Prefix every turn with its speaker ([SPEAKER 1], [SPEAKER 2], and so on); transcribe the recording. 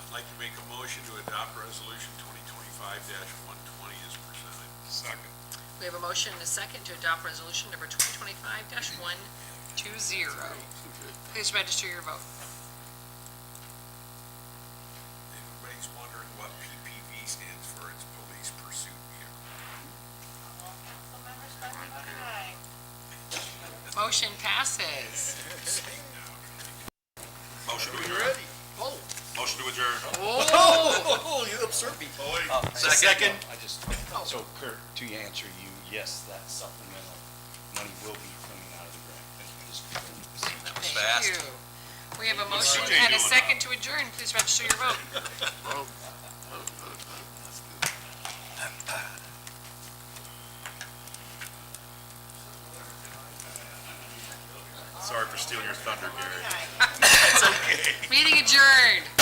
[SPEAKER 1] I'd like to make a motion to adopt resolution twenty twenty-five one twenty as presented.
[SPEAKER 2] Second.
[SPEAKER 3] We have a motion and a second to adopt resolution number 2025-120. Please register your vote.
[SPEAKER 1] Everybody's wondering what PPV stands for, it's Police Pursuit Vehicle.
[SPEAKER 4] Councilmember Spudler, aye.
[SPEAKER 3] Motion passes.
[SPEAKER 2] Motion to adjourn.
[SPEAKER 5] Oh,
[SPEAKER 2] Motion to adjourn.
[SPEAKER 5] oh, you absurd me.
[SPEAKER 2] Second.
[SPEAKER 6] I just, so Kurt, to answer you, yes, that supplemental money will be coming out of the grant. Just-
[SPEAKER 3] Thank you. We have a motion
[SPEAKER 2] CJ
[SPEAKER 3] and a
[SPEAKER 2] doing
[SPEAKER 3] second to adjourn. Please register your vote.
[SPEAKER 2] Sorry for stealing your thunder, Gary.
[SPEAKER 3] Meeting adjourned.